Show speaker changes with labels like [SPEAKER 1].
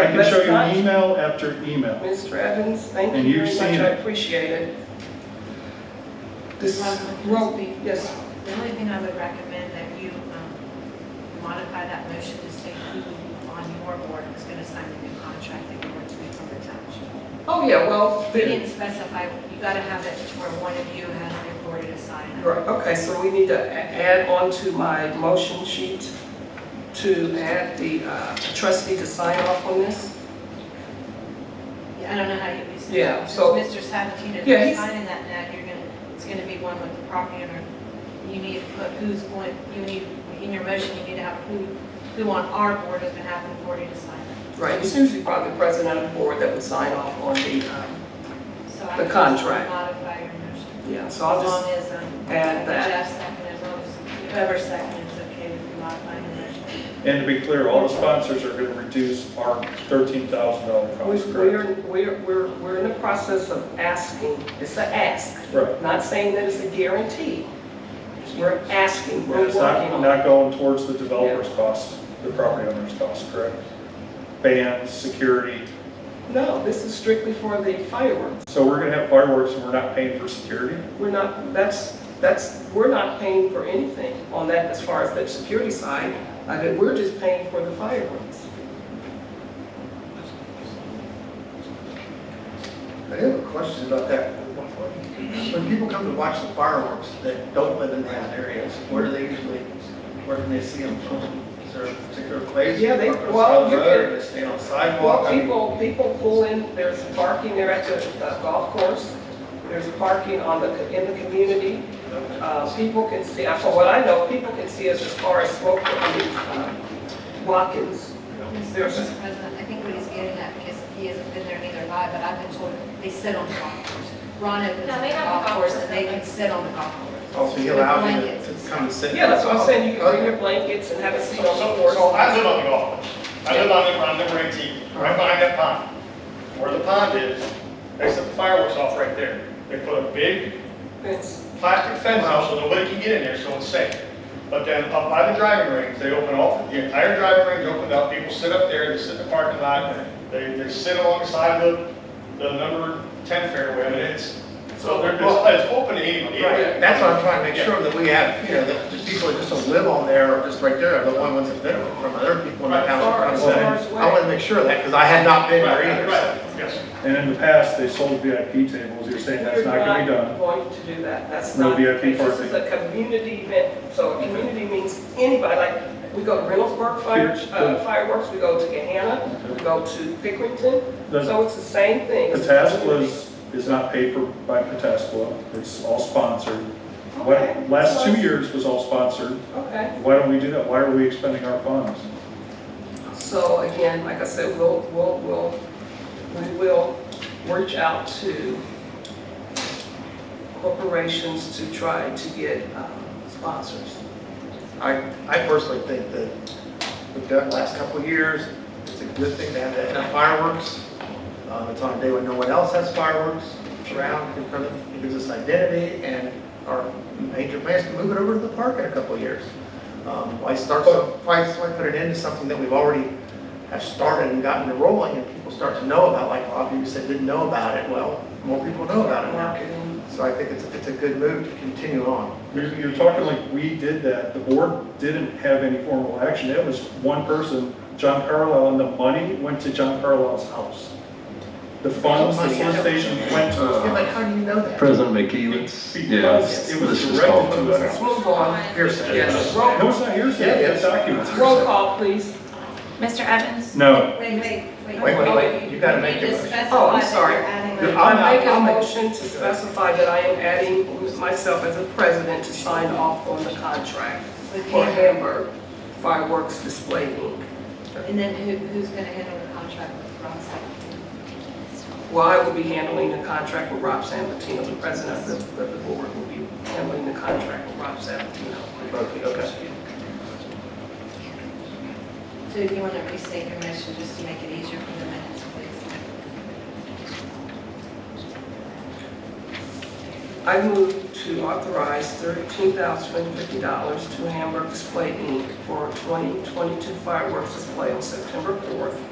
[SPEAKER 1] I can show you
[SPEAKER 2] That's fine.
[SPEAKER 1] email after email.
[SPEAKER 2] Mr. Evans, thank
[SPEAKER 1] And
[SPEAKER 2] you
[SPEAKER 1] you've
[SPEAKER 2] very much,
[SPEAKER 1] seen
[SPEAKER 2] I
[SPEAKER 1] it.
[SPEAKER 2] appreciate it. This,
[SPEAKER 3] Well,
[SPEAKER 2] well, yes,
[SPEAKER 3] The only thing I would recommend that you um, modify that motion to state who on your board is going to sign the new contract that you're going to be from the township.
[SPEAKER 2] oh, yeah, well,
[SPEAKER 3] We
[SPEAKER 2] the-
[SPEAKER 3] didn't specify, you got to have it where one of you has the authority to sign it.
[SPEAKER 2] right, okay, so we need to a- add on to my motion sheet to add the uh, trustee to sign off on this.
[SPEAKER 3] I don't know how you, it's-
[SPEAKER 2] Yeah,
[SPEAKER 3] it's
[SPEAKER 2] so-
[SPEAKER 3] Mr. Sabatino, if
[SPEAKER 2] Yeah,
[SPEAKER 3] you're
[SPEAKER 2] he's-
[SPEAKER 3] signing that now, you're gonna, it's gonna be one with the property owner. You need to put who's going, you need, in your motion, you need to have who, who on our board has been having authority to sign it.
[SPEAKER 2] Right, it's usually probably the president of the board that would sign off on the, um,
[SPEAKER 3] So I
[SPEAKER 2] The
[SPEAKER 3] would just
[SPEAKER 2] contract.
[SPEAKER 3] Modify your motion.
[SPEAKER 2] yeah, so I'll
[SPEAKER 3] As
[SPEAKER 2] just,
[SPEAKER 3] long as, um,
[SPEAKER 2] add that.
[SPEAKER 3] Jeff seconded, as long as whoever seconded is okay with you modifying the motion.
[SPEAKER 1] And to be clear, all the sponsors are going to reduce our $13,000 cost,
[SPEAKER 2] we-
[SPEAKER 1] correct?
[SPEAKER 2] we're, we're, we're we're in the process of asking, it's an ask.
[SPEAKER 1] Right.
[SPEAKER 2] Not saying that it's a guarantee. We're asking,
[SPEAKER 1] And
[SPEAKER 2] we're
[SPEAKER 1] it's
[SPEAKER 2] working
[SPEAKER 1] not,
[SPEAKER 2] on it.
[SPEAKER 1] not going towards the developer's costs, the property owner's costs, correct? Bands, security,
[SPEAKER 2] No, this is strictly for the fireworks.
[SPEAKER 1] so we're gonna have fireworks and we're not paying for security?
[SPEAKER 2] We're not, that's, that's, we're not paying for anything on that as far as the security side. I mean, we're just paying for the fireworks.
[SPEAKER 4] I have a question about that. When people come to watch the fireworks that don't live in those areas, where do they usually, where can they see them from? Is there a particular place?
[SPEAKER 2] Yeah, they-
[SPEAKER 4] Or on the
[SPEAKER 2] well, you
[SPEAKER 4] road,
[SPEAKER 2] can-
[SPEAKER 4] They stay on the sidewalk?
[SPEAKER 2] Well,
[SPEAKER 4] I mean,
[SPEAKER 2] people, people pull in, there's parking there at the uh, golf course. There's parking on the, in the community. Uh, People can see, uh, from what I know, people can see us as far as smoke, I mean, uh, Watkins. There's
[SPEAKER 3] Mr. President, I think what he's getting at, because he hasn't been there neither have I, but I've been told they sit on the golf course. Ron opens
[SPEAKER 5] No,
[SPEAKER 3] the
[SPEAKER 5] they have a
[SPEAKER 3] golf
[SPEAKER 5] golf
[SPEAKER 3] course
[SPEAKER 5] course.
[SPEAKER 3] and they can sit on the golf course.
[SPEAKER 4] Also, he
[SPEAKER 3] With
[SPEAKER 4] allows you
[SPEAKER 3] blankets
[SPEAKER 4] to-
[SPEAKER 3] and
[SPEAKER 4] to
[SPEAKER 3] stuff.
[SPEAKER 4] come and sit. Oh,
[SPEAKER 2] Yeah, that's what I'm saying, you can bring your blankets and have a seat on the
[SPEAKER 6] So, so
[SPEAKER 2] porch.
[SPEAKER 6] I live on the golf course. I live on, on number 18, right behind that pond. Where the pond is, they set the fireworks off right there. They put a big
[SPEAKER 2] It's-
[SPEAKER 6] plastic fence out so nobody can get in there, so it's safe. But then up by the driving range, they open all, the entire driving range opened up, people sit up there, they sit in the parking lot, they, they sit alongside the, the number 10 fairway, and it's, so they're, it's it's open to anybody.
[SPEAKER 4] Right, that's what I'm trying to make sure that we have, you know, that the people that just don't live on there or just right there, are the only ones that live from other people in the
[SPEAKER 6] Right,
[SPEAKER 4] town.
[SPEAKER 2] far- as far as
[SPEAKER 4] I want to make sure of that, because I had not been
[SPEAKER 6] Right,
[SPEAKER 4] there
[SPEAKER 6] right,
[SPEAKER 4] either. so.
[SPEAKER 6] yes.
[SPEAKER 1] And in the past, they sold VIP tables, you're saying that's not gonna be
[SPEAKER 2] We're not
[SPEAKER 1] done.
[SPEAKER 2] going to do that, that's
[SPEAKER 1] No
[SPEAKER 2] not.
[SPEAKER 1] VIP
[SPEAKER 2] This is
[SPEAKER 1] parking.
[SPEAKER 2] a community event, so a community means anybody, like, we go to Reynoldsburg fire- uh, fireworks, we go to Gahanna, we go to Pickerington,
[SPEAKER 1] The
[SPEAKER 2] so it's the same thing. It's a community.
[SPEAKER 1] Pataskla is not paid for by Pataskla, it's all sponsored.
[SPEAKER 2] Okay.
[SPEAKER 1] What, last two
[SPEAKER 2] Well,
[SPEAKER 1] years was all sponsored,
[SPEAKER 2] Okay,
[SPEAKER 1] why don't we do that? Why are we expending our funds?
[SPEAKER 2] so again, like I said, we'll, we'll, we'll, we will reach out to corporations to try to get um, sponsors.
[SPEAKER 4] I, I personally think that we've done the last couple of years, it's a good thing to have that enough fireworks. Um, it's on a day when no one else has fireworks around, It kind of- it gives us identity and our major plans to move it over to the park in a couple of years. Um, why start, so- why, why put it into something that we've already have started and gotten it rolling and people start to know about, like a lot of you said, didn't know about it, well, more people know about it now.
[SPEAKER 2] Marketing.
[SPEAKER 4] So I think it's, it's a good move to continue on.
[SPEAKER 1] You're, you're talking like we did that, the board didn't have any formal action, it was one person, John Carlisle, and the money went to John Carlisle's house. The funds, the solicitation went
[SPEAKER 4] Yeah,
[SPEAKER 1] to,
[SPEAKER 4] but how do you know that?
[SPEAKER 7] President McKee, let's, yeah,
[SPEAKER 1] because
[SPEAKER 7] let's
[SPEAKER 1] it was
[SPEAKER 7] just call
[SPEAKER 1] directed
[SPEAKER 7] for
[SPEAKER 1] to
[SPEAKER 7] that.
[SPEAKER 1] us.
[SPEAKER 2] Move on.
[SPEAKER 4] Hearsay.
[SPEAKER 2] Yes, roll,
[SPEAKER 1] No, it's not hearsay, it's documents.
[SPEAKER 2] roll call, please.
[SPEAKER 5] Mr. Evans?
[SPEAKER 1] No,
[SPEAKER 3] Wait, wait,
[SPEAKER 4] Wait, wait, wait, you gotta make
[SPEAKER 3] You
[SPEAKER 4] your
[SPEAKER 3] just
[SPEAKER 4] motion.
[SPEAKER 3] specified
[SPEAKER 2] Oh, I'm
[SPEAKER 3] that
[SPEAKER 2] sorry.
[SPEAKER 3] you're adding
[SPEAKER 4] You're
[SPEAKER 3] a-
[SPEAKER 4] I'm
[SPEAKER 2] I
[SPEAKER 4] not-
[SPEAKER 2] make a
[SPEAKER 4] I'm not-
[SPEAKER 2] motion to specify that I am adding myself as a president to sign off on the contract
[SPEAKER 3] with
[SPEAKER 2] for
[SPEAKER 3] Hamburg.
[SPEAKER 2] Hamburg Fireworks Display Inc.
[SPEAKER 3] And then who, who's gonna handle the contract with Ron Sabatino?
[SPEAKER 2] Well, I will be handling the contract with Rob Sambatino, the president of the, of the board will be handling the contract with Rob Sambatino.
[SPEAKER 4] Okay.
[SPEAKER 3] So if you wanna restate your motion, just to make it easier for the minutes, please.
[SPEAKER 2] I move to authorize thirteen thousand fifty dollars to Hamburg Display Inc. for twenty twenty-two fireworks display on September fourth